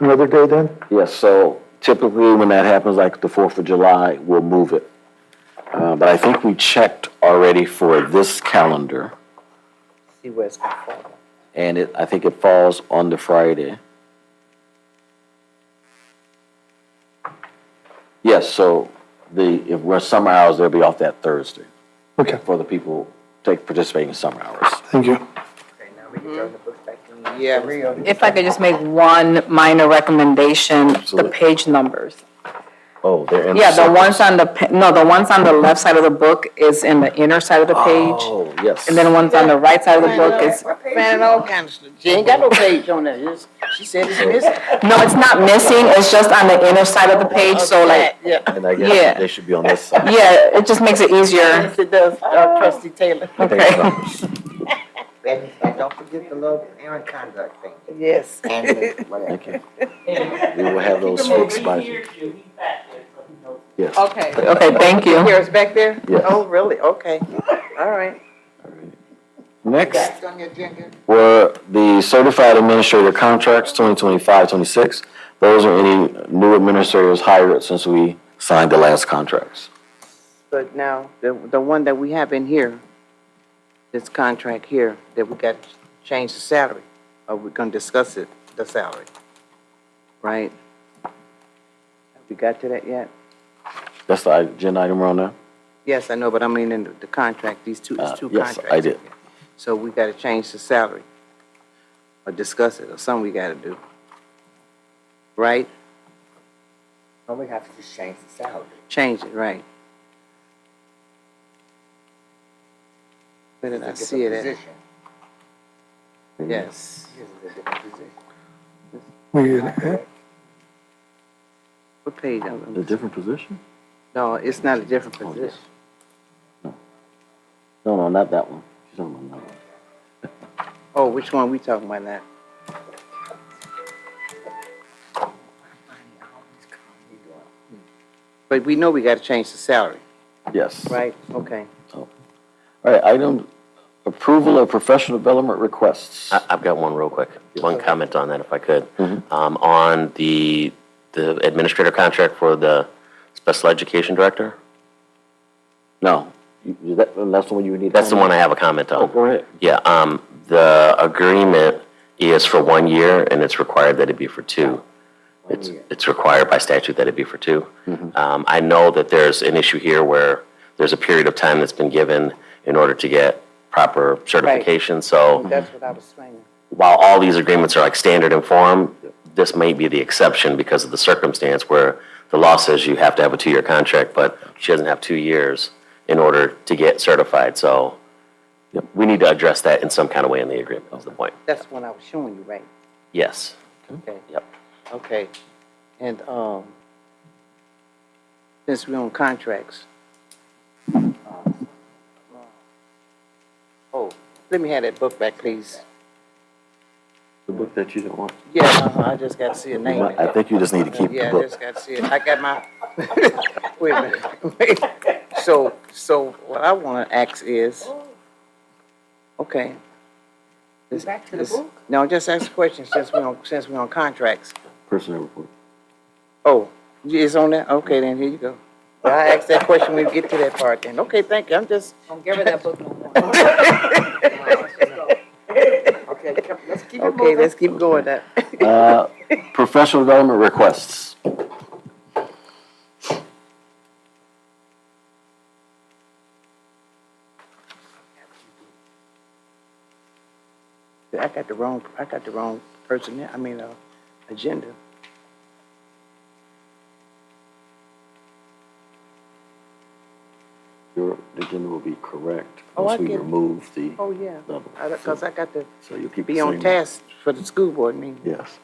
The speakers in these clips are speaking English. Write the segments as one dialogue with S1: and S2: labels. S1: Another day then?
S2: Yes, so typically when that happens, like the Fourth of July, we'll move it. Uh, but I think we checked already for this calendar,
S3: See where it's gonna fall.
S2: and it, I think it falls on the Friday. Yes, so the, if we're summer hours, they'll be off that Thursday
S1: Okay,
S2: for the people take, participating in summer hours.
S1: thank you.
S3: Okay, now we can
S4: Mm-hmm.
S3: throw the book back in. Yeah, real.
S5: If I could just make one minor recommendation, the
S2: Absolutely.
S5: page numbers.
S2: Oh, they're in.
S5: Yeah, the
S2: circles.
S5: ones on the, pa- no, the ones on the left side of the book is in the inner side of the page.
S2: Oh, yes.
S5: And then the ones on the right side of the book is,
S3: Finding all kinds of stuff. She ain't got no page on there. It's- She said it's missing.
S5: no, it's not missing, it's just on the inner side of the page, so like,
S3: Yeah,
S2: And I
S5: yeah.
S2: guess they should be on this side.
S5: yeah, it just makes it easier.
S3: yes, it does, uh, trustee Taylor.
S2: I think it's on-
S4: And, and don't forget the little errant conduct thing.
S3: Yes.
S4: And the- whatever.
S2: Thank you. We will have those fixed by. Yes.
S3: Okay.
S5: Okay, thank you.
S3: Here, it's back there?
S2: Yes.
S3: Oh, really? Okay, all right.
S2: Next
S4: That's on your agenda.
S2: were the certified administrator contracts 2025, 26. Those are any new administrators hired since we signed the last contracts.
S3: But now, the, the one that we have in here, this contract here, that we got to change the salary, are we gonna discuss it, the salary? Right? Have we got to that yet?
S2: That's the agenda item we're on now?
S3: Yes, I know, but I mean in the, the contract, these two,
S2: Uh,
S3: it's two
S2: yes,
S3: contracts.
S2: I did.
S3: So we gotta change the salary, or discuss it, or something we gotta do. Right?
S4: Don't we have to just change the salary?
S3: Change it, right? Where did I
S4: It's a
S3: see it
S4: different
S3: at?
S4: position.
S3: Yes.
S4: This is a different position.
S1: We, uh,
S3: What page? I'm- I'm-
S2: A different position?
S3: No, it's not a different
S2: Oh, yes.
S3: position.
S2: No, no, not that one. She's talking about that one.
S3: Oh, which one we talking about now? But we know we gotta change the salary,
S2: Yes.
S3: right? Okay.
S2: All right, item, approval of professional development requests.
S6: I- I've got one real quick, one comment on that if I could.
S2: Mhm.
S6: Um, On the, the administrator contract for the special education director,
S2: No, You- is that, that's the one you would need.
S6: that's the one I have a comment
S2: Oh,
S6: on.
S2: go ahead.
S6: Yeah, um, the agreement is for one year and it's required that it be for two. It's, it's required by statute that it be for two. Um, I know that there's an issue here where there's a period of time that's been given in order to get proper certification, so.
S3: That's what I was saying.
S6: while all these agreements are like standard in form, this may be the exception because of the circumstance where the law says you have to have a two-year contract, but she doesn't have two years in order to get certified, so we need to address that in some kind of way in the agreement, is the point.
S3: That's what I was showing you, right?
S6: Yes.
S3: Okay.
S6: Yep.
S3: Okay. And, um, since we're on contracts. Oh, let me have that book back, please.
S2: The book that you don't want.
S3: Yeah, uh-huh, I just got to see a name. in it.
S2: I think you just need to keep the
S3: Yeah, I
S2: book.
S3: just got to see it. I got my, wait a minute. Wait. So, so what I want to ask is, okay.
S4: Back to the
S3: this-
S4: book.
S3: No, just ask a question since we're on, since we're on contracts.
S2: Personnel report.
S3: Oh, it's on that? Okay, then here you go. Well, I asked that question when we get to that part then. Okay, thank you. I'm just,
S5: Don't give her that book
S4: Okay, come- let's keep it
S3: okay,
S4: moving.
S3: let's keep going that.
S2: Uh, Professional development requests.
S3: I got the wrong, I got the wrong person there. I mean, uh, agenda.
S2: Your agenda will be correct
S3: Oh, I
S2: once we
S3: get it.
S2: remove the
S3: Oh, yeah.
S2: double.
S3: Because I got to
S2: So you'll keep the
S3: be on
S2: same-
S3: task for the school board meeting.
S2: Yes.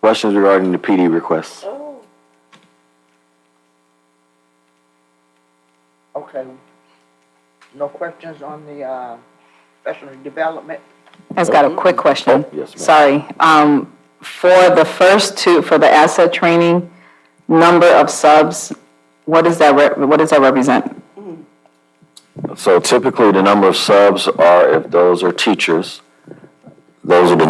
S2: Questions regarding the PD requests?
S4: Okay. No questions on the, uh, professional development?
S5: I've got a quick question.
S2: Yes, ma'am.
S5: Sorry. Um, for the first two, for the asset training, number of subs, what does that, re- what does that represent?
S2: So typically, the number of subs are, if those are teachers, Those are the